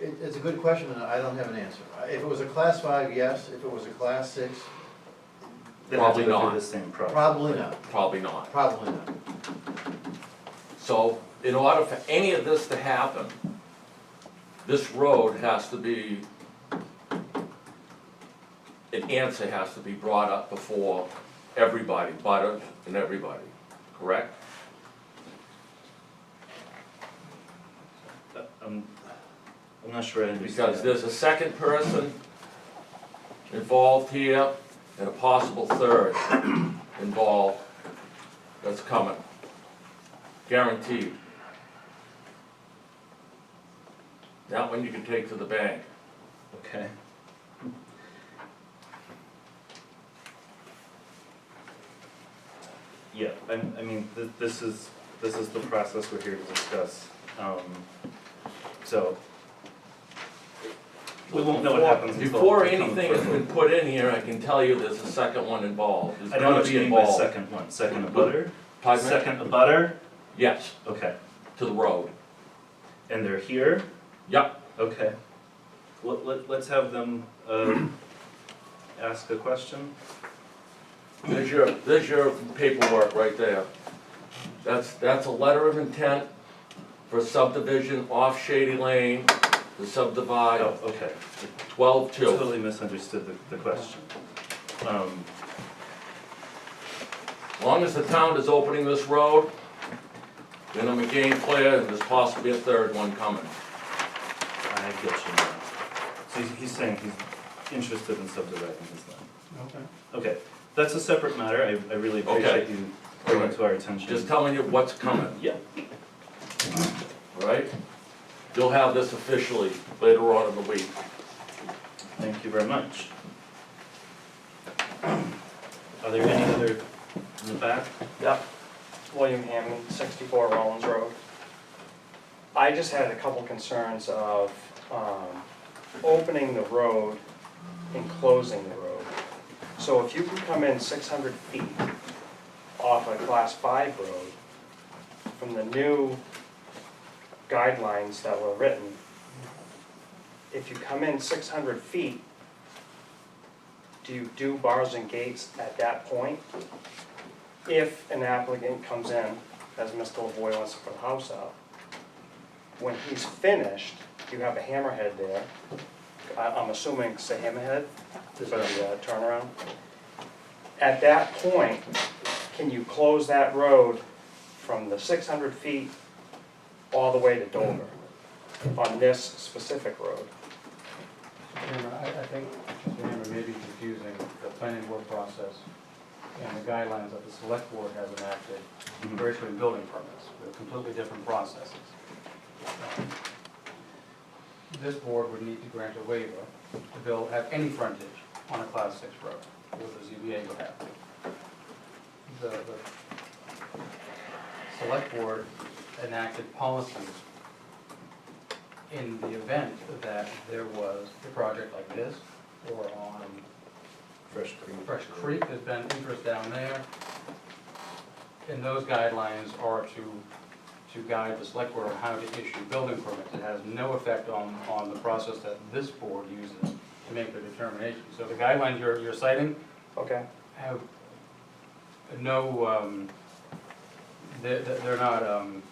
It, it's a good question, and I don't have an answer. I- If it was a class five, yes, if it was a class six, They'd have to Probably go through not. the same process. probably not, Probably not. probably not. So in order for any of this to happen, this road has to be, an answer has to be brought up before everybody, butters and everybody, correct? I'm, I'm not sure I understand. Because there's a second person involved here and a possible third involved that's coming. Guaranteed. That one you can take to the bank. Okay. Yeah, I, I mean, th- this is, this is the process we're here to discuss, um, so. We won't know what happens until. Before we come anything has further. been put in here, I can tell you there's a second one involved. There's I don't know gonna what you be mean by involved. second one. Second a butter? Pardon me? Second a butter? Yes, Okay, to the road. and they're here? Yep, Okay. Let, let, let's have them, um, ask a question. there's your, there's your paperwork right there. That's, that's a letter of intent for subdivision off Shady Lane to subdivide Oh, okay. twelve two. Totally misunderstood the, the question. Um, As long as the town is opening this road, then I'm a game player and there's possibly a third one coming. I get you now. So he's, he's saying he's interested in subdividing his land. Okay. Okay, that's a separate matter. I, I really Okay. appreciate you bringing it to our attention. Just telling you what's coming. Yeah. All right? You'll have this officially later on in the week. Thank you very much. Are there any other in the back? Yep, William Hammond, sixty-four Rollins Road. I just had a couple concerns of, um, opening the road and closing the road. So if you can come in six hundred feet off a class five road, from the new guidelines that were written, if you come in six hundred feet, do you do bars and gates at that point? if an applicant comes in, as Mr. LaVoy wants to put a house up, when he's finished, you have a hammerhead there, I, I'm assuming it's a hammerhead, for the uh, turnaround. At that point, can you close that road from the six hundred feet all the way to Dover on this specific road? Chairman, I, I think, Mr. Hammer may be confusing the planning board process and the guidelines that the select board has enacted for issuing building permits. They're completely different processes. This board would need to grant a waiver to build, have any frontage on a class six road, or the ZBA would have to. The, the select board enacted policies in the event that there was a project like this, or on Fresh green. Fresh Creek, there's been interest down there. And those guidelines are to, to guide the select board on how to issue building permits. It has no effect on, on the process that this board uses to make the determination. So the guidelines you're, you're citing Okay, have no, um, they're, they're not, um,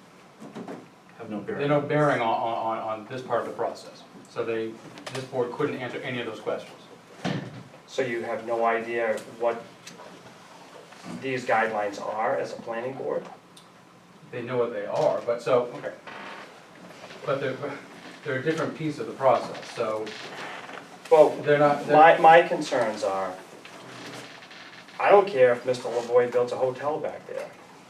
Have no bearing. they no bearing on, on, on- on this part of the process. So they, this board couldn't answer any of those questions. so you have no idea what these guidelines are as a planning board? They know what they are, but so, okay. But they're, they're a different piece of the process, so Well, they're not, they're- My, my concerns are, I don't care if Mr. Lavoy builds a hotel back there,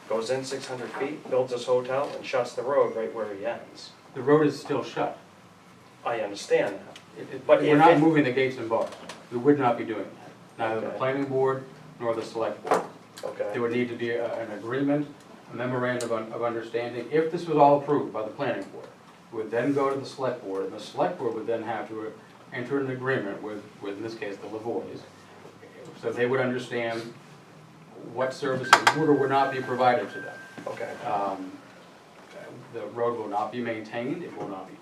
goes in six hundred feet, builds his hotel, and shuts the road right where he ends. the road is still shut. I understand that. It- it- But We're if not it- moving the gates and bars. We would not be doing that, neither the Okay. planning board nor the select board. There Okay, would need to be a- an agreement, a memorandum of of understanding, if this was all approved by the planning board. it Would then go to the select board, and the select board would then have to enter an agreement with, with, in this case, the Lavoys. So they would understand what services would or would not be provided to them. okay. Um, The road will not be maintained, it will not be